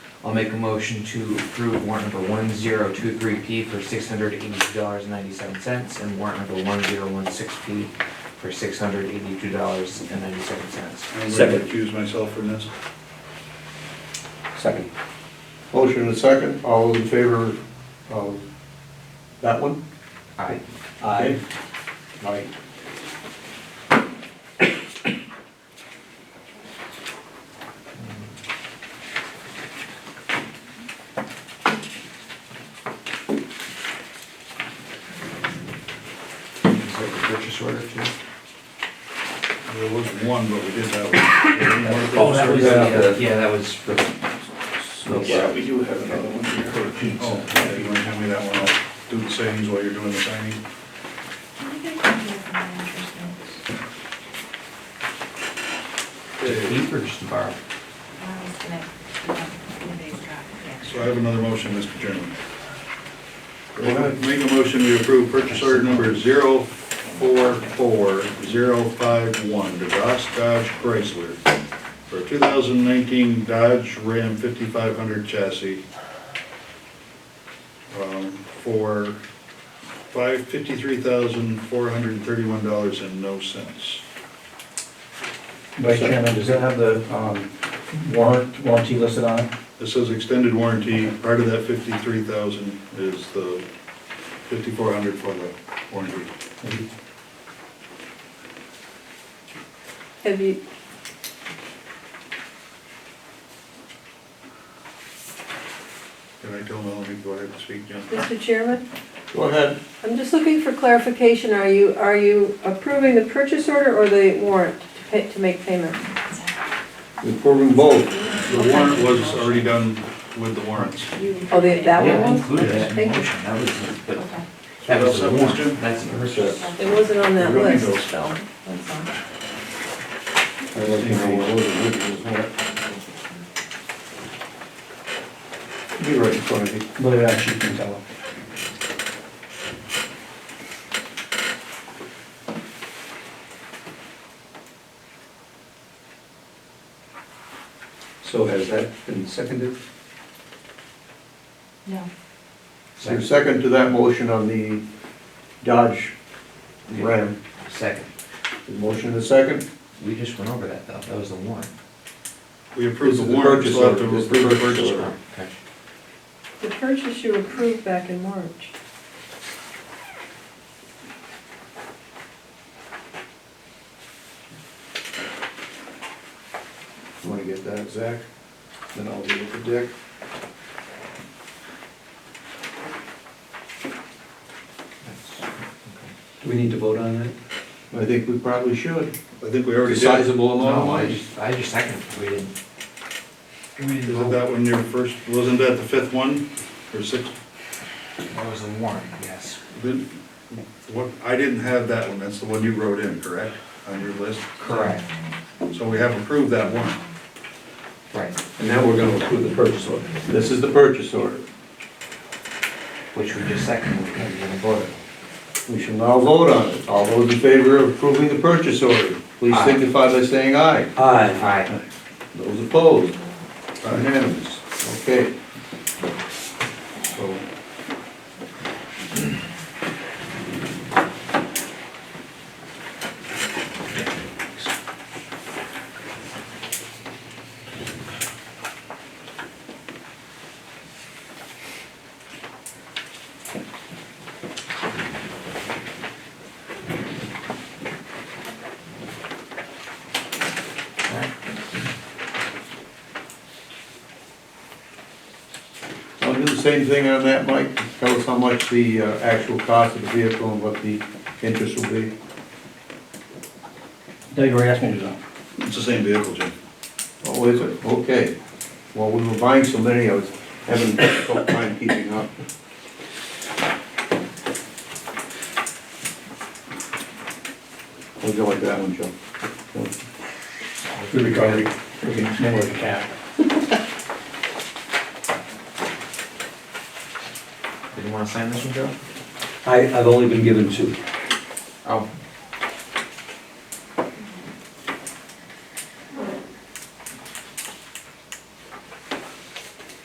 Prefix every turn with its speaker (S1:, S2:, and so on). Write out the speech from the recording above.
S1: I'll make a motion to approve warrant number one zero two three P for six hundred eighty-two dollars and ninety-seven cents and warrant number one zero one six P for six hundred eighty-two dollars and ninety-seven cents.
S2: I'm going
S3: Second.
S2: to accuse myself from this.
S3: Second.
S4: Motion and second, all those in favor of that one?
S1: Aye.
S3: Aye.
S4: Aye.
S1: Is that the purchase order too?
S2: There was one, but we did have.
S3: Oh, that was-
S1: Yeah, yeah, that was uh, for the smoke.
S5: Yeah, we do have another one here.
S2: Oh, yeah, you want to hand me that one? I'll do the signings while you're doing the signing.
S6: I think I can do it from my interest
S1: To
S6: notes.
S1: keep or just to borrow?
S6: I was gonna, um, today's got the extra.
S2: So I have another motion, Mr. Chairman.
S4: Go ahead.
S2: Make a motion to approve purchase order number zero four four zero five one to Ross Dodge Chrysler for a two thousand nineteen Dodge Ram fifty-five hundred chassis um, for five, fifty-three thousand, four hundred and thirty-one dollars and no cents.
S3: Vice Chairman, does that have the um, warrant, warranty listed on it?
S2: It says extended warranty, part of that fifty-three thousand is the fifty-four hundred for the warranty.
S7: Have you,
S2: Can I tell Melanie, go ahead and speak, John?
S7: Mr. Chairman,
S4: Go ahead.
S7: I'm just looking for clarification. Are you, are you approving the purchase order or the warrant to pay, to make payment?
S4: Approving both.
S2: The warrant was already done with the warrants.
S7: Oh, the, that
S1: Yeah, I
S7: one?
S1: included that in the
S7: Thank you.
S1: motion, that was, but
S6: Okay.
S1: that was the
S2: Something else, Jim?
S1: warrant, that's the purchase.
S7: It wasn't on that
S2: We don't need
S7: list,
S2: those.
S7: so. that's all.
S4: I'd like to know what those originals were. Be right in front of you.
S3: Look at that, you can tell.
S4: So has that been seconded?
S6: No.
S4: Is there a second to that motion on the Dodge Ram?
S1: Second,
S4: The Motion and a second?
S1: we just went over that though, that was the warrant.
S2: We approved the
S4: This is the
S2: warrant,
S4: purchase
S2: so have to
S4: order. This is the
S2: approve the
S4: purchase
S2: purchase
S4: order.
S2: order.
S1: Okay.
S7: The purchase you approved back in March.
S4: You wanna get that, Zach? Then I'll deal with the Dick.
S1: That's- okay.
S8: Do we need to vote on that?
S4: I think we probably should.
S2: I think we already
S4: It's a
S2: did. Is
S4: Sizable amount of
S1: No, I
S4: money.
S1: just, I just seconded, we didn't. We didn't
S2: not
S1: vote.
S2: that one your first, wasn't that the fifth one, or sixth?
S1: That was the warrant, yes.
S2: Didn't- What, I didn't have that one, that's the one you wrote in, correct, on your list?
S1: Correct.
S2: So we have approved that one.
S1: Right,
S4: And now we're gonna approve the purchase order. This is the purchase order.
S1: which we just seconded, we didn't even vote.
S4: We shall now vote on it. All those in favor of approving the purchase order, please
S1: Aye.
S4: signify by saying aye.
S1: Uh,
S8: Aye.
S1: Aye.
S4: Those opposed,
S2: Uh,
S4: unanimous. Okay,
S2: So
S4: I'll do the same thing on that, Mike. Tell us how much the uh, actual cost of the vehicle and what the interest will be.
S3: No, you already asked me to do that.
S2: It's the same vehicle, Jim.
S4: Oh, is it? Okay. Well, we were buying so many, I was having a difficult time keeping up. We'll go like that one, Joe.
S3: We recovered, we can manage the cap.
S1: Did you wanna sign this one, Joe?
S8: I, I've only been given two.
S1: Oh,